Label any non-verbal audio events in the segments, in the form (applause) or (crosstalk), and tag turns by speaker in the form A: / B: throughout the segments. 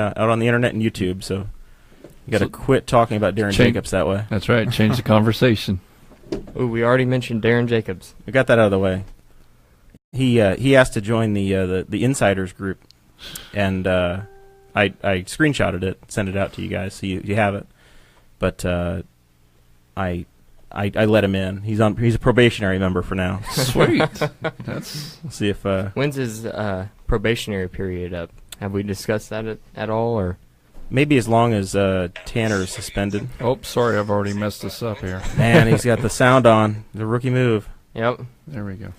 A: uh, out on the internet and YouTube. So you got to
B: So-
A: quit talking about Darren
B: Change-
A: Jacobs that way.
B: That's right. Change the (laughs) conversation.
C: Ooh, we already mentioned Darren Jacobs.
A: We got that out of the way. He uh, he asked to join the uh, the the insiders group, and uh, I I screenshotted it, sent it out to you guys, so you, you have it. But uh, I, I I let him in. He's on. He's a probationary member for now.
B: Sweet. That's
A: We'll see if uh,
C: When's his uh, probationary period up? Have we discussed that at, at all? Or
A: maybe as long as uh, Tanner is suspended.
B: Oh, sorry, I've already messed this up here.
A: Man, he's got the sound on. The rookie move.
C: yep,
B: There we go.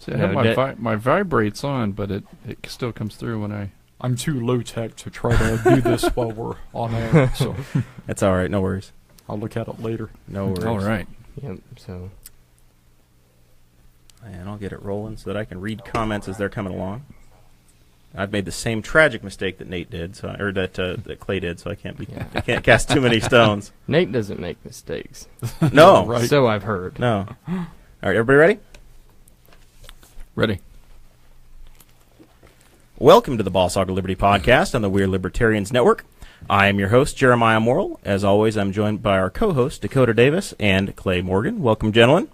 B: See, I have
A: No,
B: my
A: that-
B: vi- my vibrates on, but it, it still comes through when I
D: I'm too low tech to try to
C: (laughs)
D: do this while we're on air, so
A: That's all right. No worries.
D: I'll look at it later.
A: No worries.
B: All right.
C: yep. So
A: And I'll get it rolling so that I can read comments as they're coming along. I've made the same tragic mistake that Nate did, so or that uh, that Clay did, so I can't be
C: Yeah.
A: I can't cast too many stones.
C: Nate doesn't make mistakes.
A: No,
D: Right.
C: So I've heard.
A: no. All right, everybody ready?
B: Ready.
A: Welcome to the Ball Soccer Liberty podcast on the Weird Libertarians Network. I am your host Jeremiah Morrill. As always, I'm joined by our co-host Dakota Davis and Clay Morgan. Welcome, gentlemen.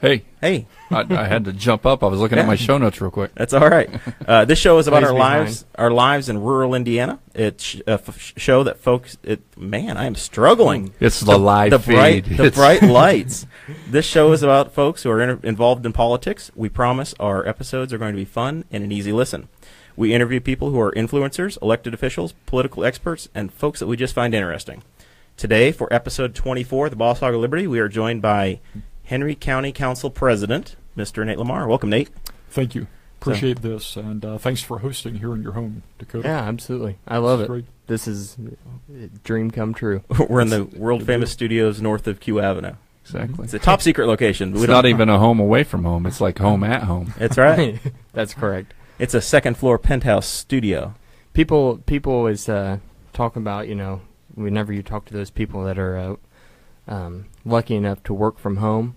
B: Hey,
A: Hey,
B: I, I had to jump up. I was looking at my show notes real quick.
A: That's all right.
B: (laughs)
A: Uh, this show is about
C: Please
A: our
C: be
A: lives, our lives in rural Indiana. It's sh- a f- sh- show that folks. It, man, I am struggling.
B: It's the live
A: the
B: feed.
A: bright, the
B: It's- (laughs)
A: bright lights. This show is about folks who are inter- involved in politics. We promise our episodes are going to be fun and an easy listen. We interview people who are influencers, elected officials, political experts, and folks that we just find interesting. Today, for episode 24, the Ball Hog of Liberty, we are joined by Henry County Council President, Mr. Nate Lamar. Welcome, Nate.
D: Thank you. Appreciate this, and uh, thanks for hosting here in your home, Dakota.
C: Yeah, absolutely. I
D: This
C: love
D: is
C: it.
D: great.
C: This is a dream come true.
A: (laughs) We're in the world famous studios north of Q Avenue.
B: Exactly. (laughs)
A: It's a top secret location.
B: It's not even a home away from home. It's like home at home.
A: (laughs) It's right.
C: (laughs) That's correct.
A: it's a second floor penthouse studio.
C: People people always uh, talk about you know whenever you talk to those people that are uh, um, lucky enough to work from home.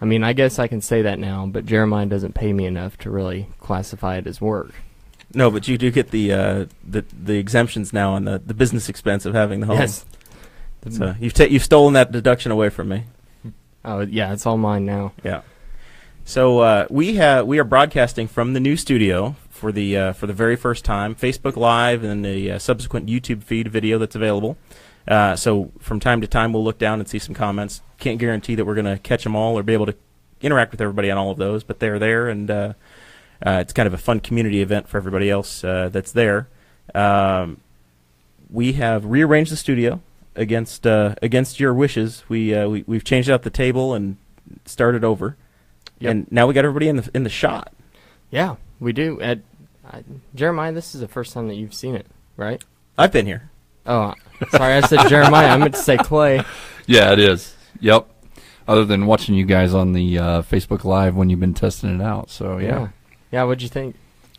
C: I mean, I guess I can say that now, but Jeremiah doesn't pay me enough to really classify it as work.
A: No, but you do get the uh, the, the exemptions now on the, the business expense of having the home. (laughs)
C: Yes. The-
A: So you've ta- you've stolen that deduction away from me.
C: Oh yeah, it's all mine now.
A: Yeah. So uh, we have we are broadcasting from the new studio for the uh, for the very first time, Facebook Live, and the uh, subsequent YouTube feed video that's available. Uh, so from time to time, we'll look down and see some comments. Can't guarantee that we're going to catch them all or be able to interact with everybody on all of those, but they're there, and uh, uh, it's kind of a fun community event for everybody else uh, that's there. Um, we have rearranged the studio against uh, against your wishes. We, uh, we we've changed out the table and started over,
C: Yep.
A: and now we got everybody in the in the shot.
C: Yeah, we do. At I, Jeremiah, this is the first time that you've seen it, right?
A: I've been here.
C: Oh, sorry, I
A: (laughs)
C: said Jeremiah. I meant to say Clay.
B: Yeah, it is. Yep. Other than watching you guys on the uh, Facebook Live when you've been testing it out. So, yeah.
C: yeah. Yeah, what'd you think?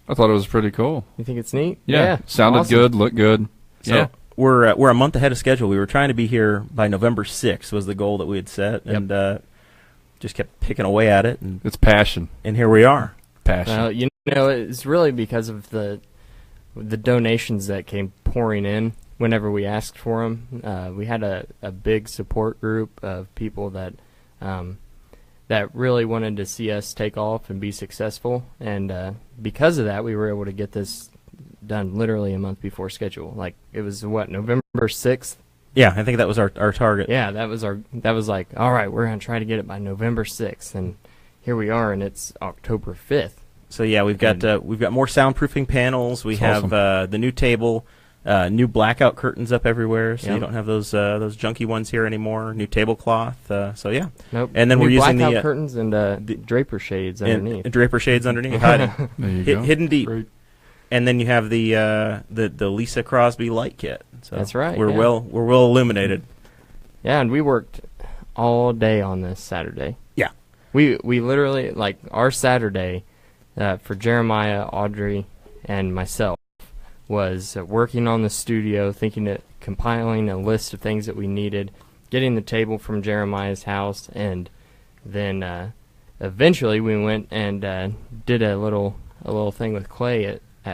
B: I thought it was pretty cool.
C: You think it's neat?
B: Yeah. Sounded
C: awesome.
B: good, looked good.
A: So
B: Yeah.
A: we're uh, we're a month ahead of schedule. We were trying to be here by November 6th was the goal that we had set,
C: Yep.
A: and uh, just kept picking away at it, and,
B: It's passion.
A: and here we are.
B: Passion.
C: Well, you know, it's really because of the the donations that came pouring in whenever we asked for them. Uh, we had a, a big support group of people that um, that really wanted to see us take off and be successful, and uh, because of that, we were able to get this done literally a month before schedule. Like it was what November sixth.
A: Yeah, I think that was our our target.
C: Yeah, that was our that was like all right, we're gonna try to get it by November sixth, and here we are, and it's October fifth.
A: So yeah, we've got
C: And-
A: uh, we've got more soundproofing panels. We
B: That's
A: have
B: awesome.
A: uh, the new table, uh, new blackout curtains up everywhere, so you
C: Yeah.
A: don't have those uh, those junky ones here anymore. New tablecloth. Uh, so yeah,
C: Nope.
A: And then
C: New
A: we're using the,
C: blackout
A: uh,
C: curtains and uh,
A: the-
C: draper shades
A: and,
C: underneath.
A: and draper shades underneath, hiding,
B: there you
A: hid,
B: go.
A: hidden deep.
D: Great.
A: And then you have the uh, the the Lisa Crosby light kit. So
C: That's right,
A: We're
C: yeah.
A: well we're well illuminated.
C: (laughs) yeah, and we worked all day on this Saturday.
A: Yeah.
C: We we literally like our Saturday uh, for Jeremiah, Audrey, and myself was uh, working on the studio, thinking of compiling a list of things that we needed, getting the table from Jeremiah's house, and then uh, eventually we went and uh, did a little a little thing with Clay at